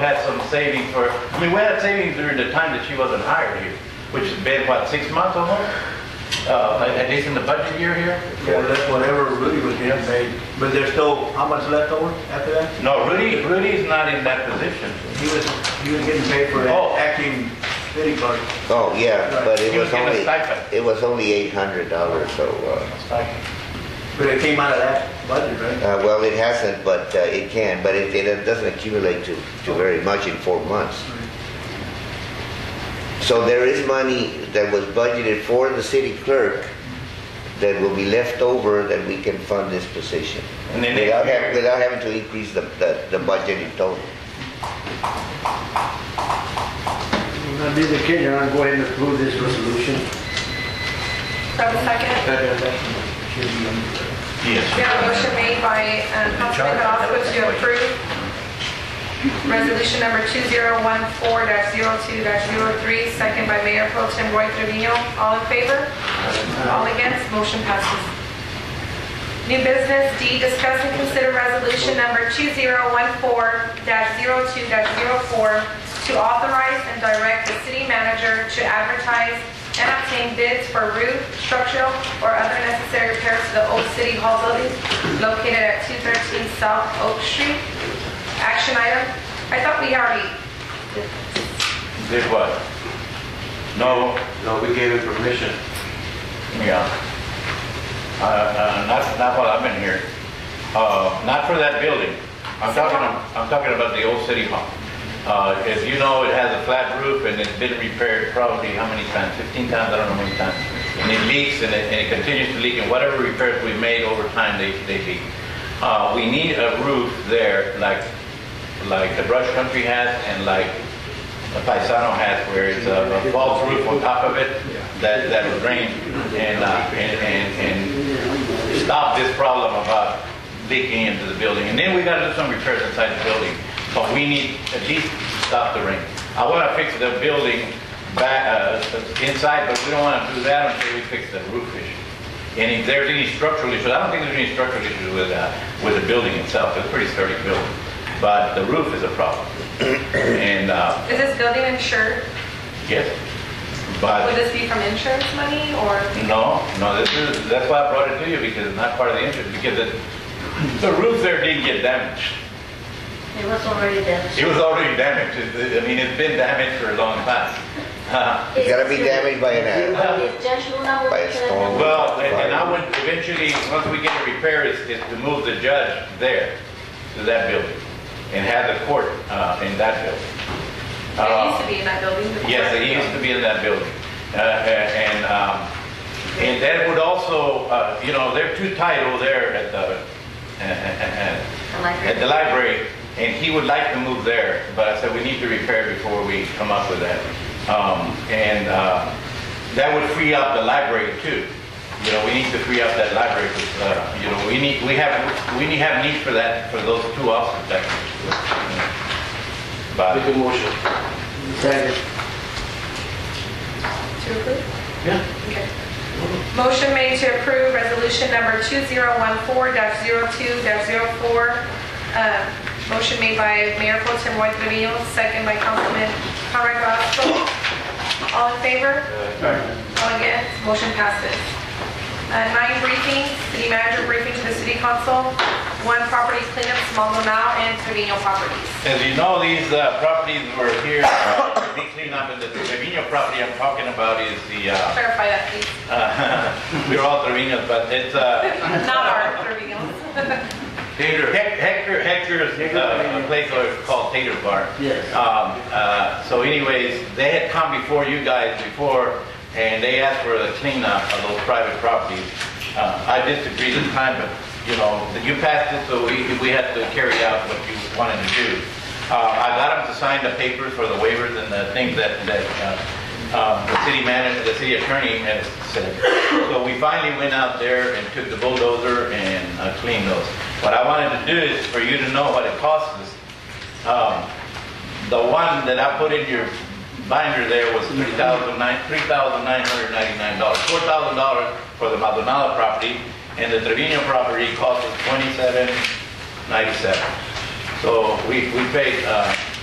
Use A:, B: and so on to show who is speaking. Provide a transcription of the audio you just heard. A: had some savings for, I mean, we had savings during the time that she wasn't hired here, which has been, what, six months almost? Uh, at at least in the budget year here?
B: Well, that's whatever Rudy was getting paid, but there's still, how much left over after that?
A: No, Rudy, Rudy's not in that position.
B: He was, he was getting paid for
A: Oh.
B: acting city clerk.
C: Oh, yeah, but it
A: He was
C: was
A: getting a
C: only,
A: stipend.
C: it was only eight hundred dollars, so, uh,
B: But it came out of that budget, right?
C: uh, well, it hasn't, but uh, it can, but it, it doesn't accumulate to, to very much in four months. So there is money that was budgeted for the city clerk that will be left over that we can fund this position.
A: And then
C: Without
A: next
C: having,
A: year-
C: without having to increase the, the, the budget in total.
D: On this occasion, I'm going to approve this resolution.
E: Grab a second. We
A: Yes.
E: have a motion made by um, Councilman Velasquez to approve resolution number 2014-02-03, second by Mayor Pro Tem Roy Trevino. All in favor? All against? Motion passes. New business D, discuss and consider resolution number 2014-02-04 to authorize and direct the city manager to advertise and obtain bids for roof, structural, or other necessary repairs to the old city hall building located at 213 South Oak Street. Action item, I thought we already,
A: Did what? No,
F: No, we gave it permission.
A: yeah. Uh, uh, not, not while I've been here. Uh, not for that building. I'm talking, I'm talking about the old city hall. Uh, as you know, it has a flat roof and it's been repaired probably how many times? Fifteen times, I don't know how many times. And it leaks and it, and it continues to leak and whatever repairs we made over time, they, they leak. Uh, we need a roof there like, like the Brush Country has and like the Paisano has where it's a a false roof on top of it that, that would drain and, uh, and, and, and stop this problem about leaking into the building. And then we gotta do some repairs inside the building, but we need at least to stop the rain. I wanna fix the building back, uh, inside, but we don't wanna do that until we fix the roof issue. And if there's any structural issues, I don't think there's any structural issues with, uh, with the building itself, it's a pretty sturdy building. But the roof is a problem. And, uh,
E: is this building insured?
A: Yes,
E: Would
A: but
E: this be from insurance money or?
A: no, no, this is, that's why I brought it to you because it's not part of the interest, because it, the roof there didn't get damaged.
G: It was already damaged.
A: It was already damaged. It- I mean, it's been damaged for a long time. Uh,
C: It's gotta be damaged by an, uh,
G: It's just Luna will
C: By a
G: tell
C: storm.
G: them.
A: Well, and and I would eventually, once we get it repaired, is, is to move the judge there to that building and have the court, uh, in that building.
E: It
A: Uh,
E: used to be in that building before.
A: Yes, it used to be in that building. Uh, And, um, and that would also, uh, you know, they're too tight over there at the, uh, at the library, and he would like to move there, but I said, we need to repair before we come up with that. Um, And uh, that would free up the library too. You know, we need to free up that library, 'cause, uh, you know, we need, we have, we need have need for that, for those two officers. that- But,
F: Make a motion.
D: Second.
E: To approve?
F: Yeah.
E: Okay. Motion made to approve resolution number 2014-02-04. Uh, Motion made by Mayor Pro Tem Roy Trevino, second by Councilman Conrad Gospel. All in favor? All against? Motion passes. Uh, Nine briefings, city manager briefing to the city council, one property cleanup, small amount, and Trevino properties.
A: As you know, these uh, properties were here, uh, we cleaned up, and the Trevino property I'm talking about is the, uh,
E: Clarify that, please.
A: uh, we're all Trevinos, but it's uh,
E: Not our Trevino.
A: Hec- Hector, Hector's uh, a place where it's called Tater Bar.
D: Yes.
A: Um, uh, So anyways, they had come before you guys before, and they asked for the cleanup of those private properties. Uh, I disagreed at the time, but, you know, you passed it, so we, we had to carry out what you wanted to do. Uh, I got them to sign the papers for the waivers and the things that, that uh, um, the city manager, the city attorney had said. So we finally went out there and took the bulldozer and uh, cleaned those. What I wanted to do is for you to know what it costs us. Um, the one that I put in your binder there was three thousand nine, three thousand nine hundred ninety-nine dollars. Four thousand dollars for the Maldonado property, and the Trevino property cost us twenty-seven ninety-seven. So we, we paid, uh,